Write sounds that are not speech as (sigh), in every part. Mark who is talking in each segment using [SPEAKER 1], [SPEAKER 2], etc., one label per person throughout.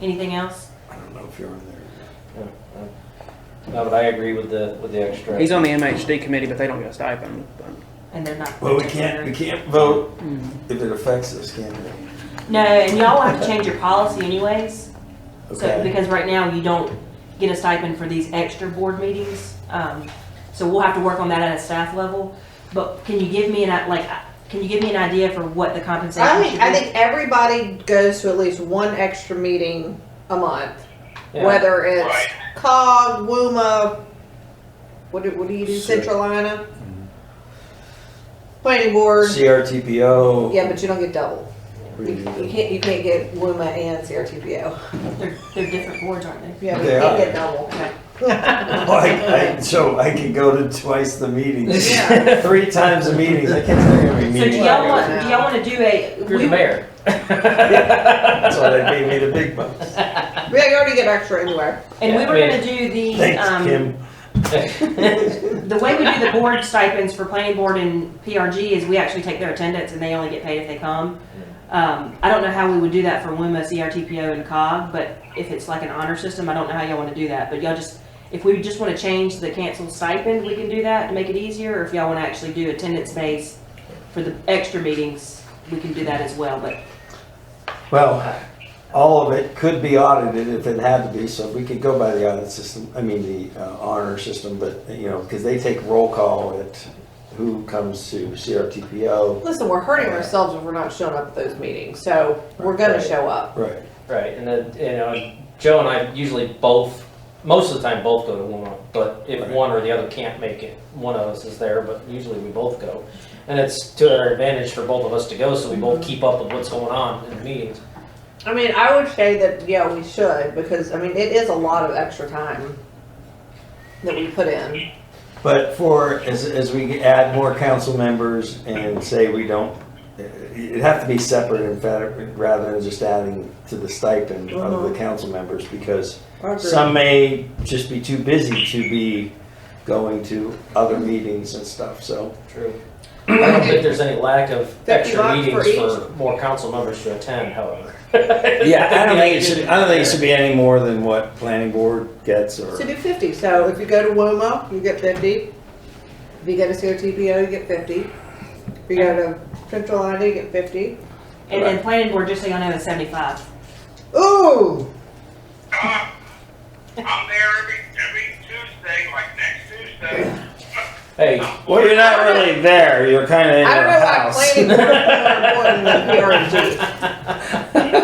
[SPEAKER 1] Anything else?
[SPEAKER 2] I don't know if you're on there.
[SPEAKER 3] No, but I agree with the, with the extra.
[SPEAKER 4] He's on the MHD committee, but they don't get a stipend. but-
[SPEAKER 1] And they're not.
[SPEAKER 2] Well, we can't, we can't vote
[SPEAKER 1] Hmm.
[SPEAKER 2] if it affects us, can we?
[SPEAKER 1] No, and y'all will have to change your policy anyways. So,
[SPEAKER 2] Okay.
[SPEAKER 1] because right now you don't get a stipend for these extra board meetings. Um, so we'll have to work on that at a staff level. But can you give me an, i- like, uh, can you give me an idea for what the compensation
[SPEAKER 5] I
[SPEAKER 1] should
[SPEAKER 5] think
[SPEAKER 1] be?
[SPEAKER 5] I think everybody goes to at least one extra meeting a month,
[SPEAKER 3] Yeah. (laughs)
[SPEAKER 5] whether it's
[SPEAKER 6] Right.
[SPEAKER 5] COG, WUMA, what do, what do you do,
[SPEAKER 2] Sure.
[SPEAKER 5] Central Ina? Planning board.
[SPEAKER 2] CRTPO.
[SPEAKER 5] Yeah, but you don't get double.
[SPEAKER 2] oh. we
[SPEAKER 5] You,
[SPEAKER 2] do
[SPEAKER 5] you
[SPEAKER 2] that.
[SPEAKER 5] can't you can't get WUMA and CRTPO.
[SPEAKER 1] They're, they're different boards, aren't they?
[SPEAKER 5] Yeah, we
[SPEAKER 2] They
[SPEAKER 5] can't
[SPEAKER 2] are.
[SPEAKER 5] get double.
[SPEAKER 1] (laughs)
[SPEAKER 2] Like, Oh, I, so I can go to twice the meetings,
[SPEAKER 5] Yeah.
[SPEAKER 2] (laughs)
[SPEAKER 5] (laughs)
[SPEAKER 2] three times the meetings. I can't tell you how many
[SPEAKER 1] So do
[SPEAKER 2] meetings.
[SPEAKER 1] y'all
[SPEAKER 2] I go to.
[SPEAKER 1] want, do y'all wanna do a?
[SPEAKER 3] You're
[SPEAKER 1] we-
[SPEAKER 3] the mayor.
[SPEAKER 2] That's why they paid me the big bucks.
[SPEAKER 5] Yeah, you already get extra anywhere.
[SPEAKER 1] And we
[SPEAKER 3] Yeah,
[SPEAKER 1] were
[SPEAKER 3] I mean-
[SPEAKER 1] gonna do (laughs) the,
[SPEAKER 2] Thanks,
[SPEAKER 1] um,
[SPEAKER 2] Kim.
[SPEAKER 1] the way we do the board stipends for planning board and PRG is we actually take their attendance and they only get paid if they come. Um, I don't know how we would do that for WUMA, CRTPO and COG, but if it's like an honor system, I don't know how y'all wanna do that, but y'all just, if we just wanna change the canceled stipend, we can do that to make it easier, or if y'all wanna actually do attendance based for the extra meetings, we can do that as well, but
[SPEAKER 2] Well, all of it could be audited if it had to be, so we could go by the audit system, I mean, the uh, honor system, but, you know, because they take roll call at who comes to CRTPO.
[SPEAKER 5] Listen, we're hurting ourselves if we're not showing up at those meetings, so we're gonna
[SPEAKER 3] Right.
[SPEAKER 5] show up.
[SPEAKER 2] Right.
[SPEAKER 3] (laughs) Right, and then, you know, Joe and I usually both, most of the time both go to one, but if
[SPEAKER 2] Right.
[SPEAKER 3] one or the other can't make it, one of us is there, but usually we both go. And it's to our advantage for both of us to go, so we
[SPEAKER 5] Mm-hmm.
[SPEAKER 3] both keep up with what's going on in the meetings.
[SPEAKER 5] I mean, I would say that yeah, we should because I mean it is a lot of extra time that we put in.
[SPEAKER 2] But for, as, as we add more council members and say we don't, it'd have to be separate and fed- rather than just adding to the stipend of
[SPEAKER 5] Mhm.
[SPEAKER 2] the council members, because Some may just be too busy to be going to other meetings and stuff, so.
[SPEAKER 3] True. I don't think there's any lack of
[SPEAKER 5] Fifty
[SPEAKER 3] extra
[SPEAKER 5] bucks for
[SPEAKER 3] meetings for more council members to attend, however.
[SPEAKER 2] Yeah, I
[SPEAKER 3] (laughs)
[SPEAKER 2] don't think it should, I don't think it should be any more than what planning board gets or,
[SPEAKER 5] So do fifty. So if you go to WOMA, you get fifty. If you go to COTPO, you get fifty. If you go to Central ID, you get fifty.
[SPEAKER 1] And then planning board, just so y'all know, is seventy-five.
[SPEAKER 5] Ooh,
[SPEAKER 6] Uh, I'm there every, every Tuesday, like next Tuesday.
[SPEAKER 3] Hey,
[SPEAKER 2] well, you're not really there, you're kinda in
[SPEAKER 5] I don't
[SPEAKER 2] your
[SPEAKER 5] know why
[SPEAKER 2] house.
[SPEAKER 5] planning board is more important than PRG.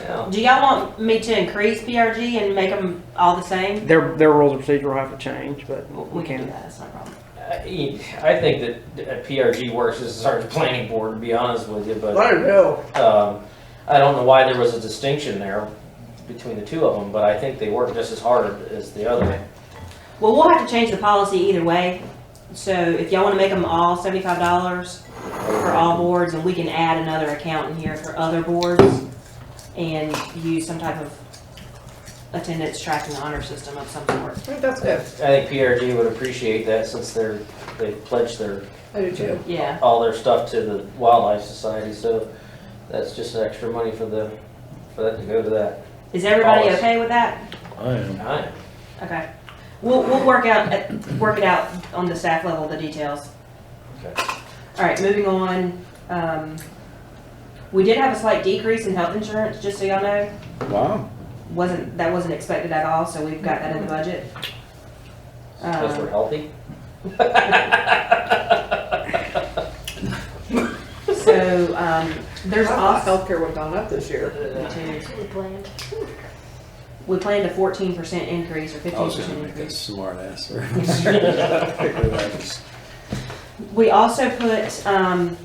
[SPEAKER 3] yeah,
[SPEAKER 1] Do y'all want me to increase PRG and make them all the same?
[SPEAKER 4] Their, their rules of procedure will have to change, but
[SPEAKER 1] We can do
[SPEAKER 4] can.
[SPEAKER 1] that, that's not a problem.
[SPEAKER 3] I Uh, I think that uh, PRG works as our planning board, to be honest with you, but.
[SPEAKER 5] (laughs) I don't know.
[SPEAKER 3] Um, I don't know why there was a distinction there between the two of them, but I think they work just as hard as the other.
[SPEAKER 1] Well, we'll have to change the policy either way. So if y'all wanna make them all seventy-five dollars for all boards, and we can add another account in here for other boards and use some type of attendance tracking honor system of some sort.
[SPEAKER 5] I think that's
[SPEAKER 3] I
[SPEAKER 5] good.
[SPEAKER 3] think PRG would appreciate that since they're, they pledged their,
[SPEAKER 5] I do too.
[SPEAKER 1] Yeah,
[SPEAKER 3] all their stuff to the Wildlife Society, so that's just extra money for the, for that to go to that.
[SPEAKER 1] is everybody
[SPEAKER 3] Always.
[SPEAKER 1] okay with that?
[SPEAKER 3] Alright.
[SPEAKER 1] Okay. We'll, we'll work out, uh, work it out on the staff level, the details.
[SPEAKER 3] Okay.
[SPEAKER 1] All right, moving on. Um, we did have a slight decrease in health insurance, just so y'all know.
[SPEAKER 2] Wow.
[SPEAKER 1] Wasn't, that wasn't expected at all, so we've got that in the budget.
[SPEAKER 5] Uh,
[SPEAKER 3] Because we're
[SPEAKER 1] Um,
[SPEAKER 3] healthy?
[SPEAKER 1] so, um, there's
[SPEAKER 5] I thought
[SPEAKER 1] also,
[SPEAKER 5] healthcare went on up this year.
[SPEAKER 1] we planned a fourteen percent increase or
[SPEAKER 2] I
[SPEAKER 1] fifteen
[SPEAKER 2] was gonna
[SPEAKER 1] percent
[SPEAKER 2] make a
[SPEAKER 1] increase.
[SPEAKER 2] smart ass
[SPEAKER 5] (laughs)
[SPEAKER 2] reference.
[SPEAKER 1] We also put, um,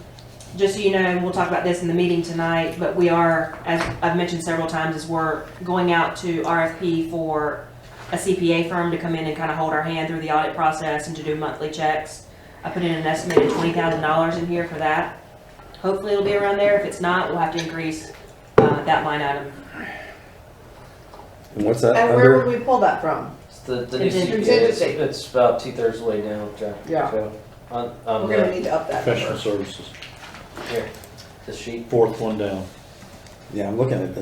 [SPEAKER 1] just so you know, and we'll talk about this in the meeting tonight, but we are, as I've mentioned several times, is we're going out to RFP for a CPA firm to come in and kind of hold our hand through the audit process and to do monthly checks. I put in an estimated twenty thousand dollars in here for that. Hopefully it'll be around there. If it's not, we'll have to increase, uh, that line item.
[SPEAKER 2] And (laughs) what's that
[SPEAKER 5] And where
[SPEAKER 2] under?
[SPEAKER 5] would we pull that from?
[SPEAKER 3] It's the, the new
[SPEAKER 1] Contingency.
[SPEAKER 3] CPA, it's, it's about two thirds way down, Jack.
[SPEAKER 5] Yeah.
[SPEAKER 3] So, On,
[SPEAKER 5] We're
[SPEAKER 3] on
[SPEAKER 5] gonna
[SPEAKER 3] the,
[SPEAKER 5] need to up that. number.
[SPEAKER 7] Professional services,
[SPEAKER 3] the sheet.
[SPEAKER 7] fourth one down.
[SPEAKER 2] Yeah, I'm looking at the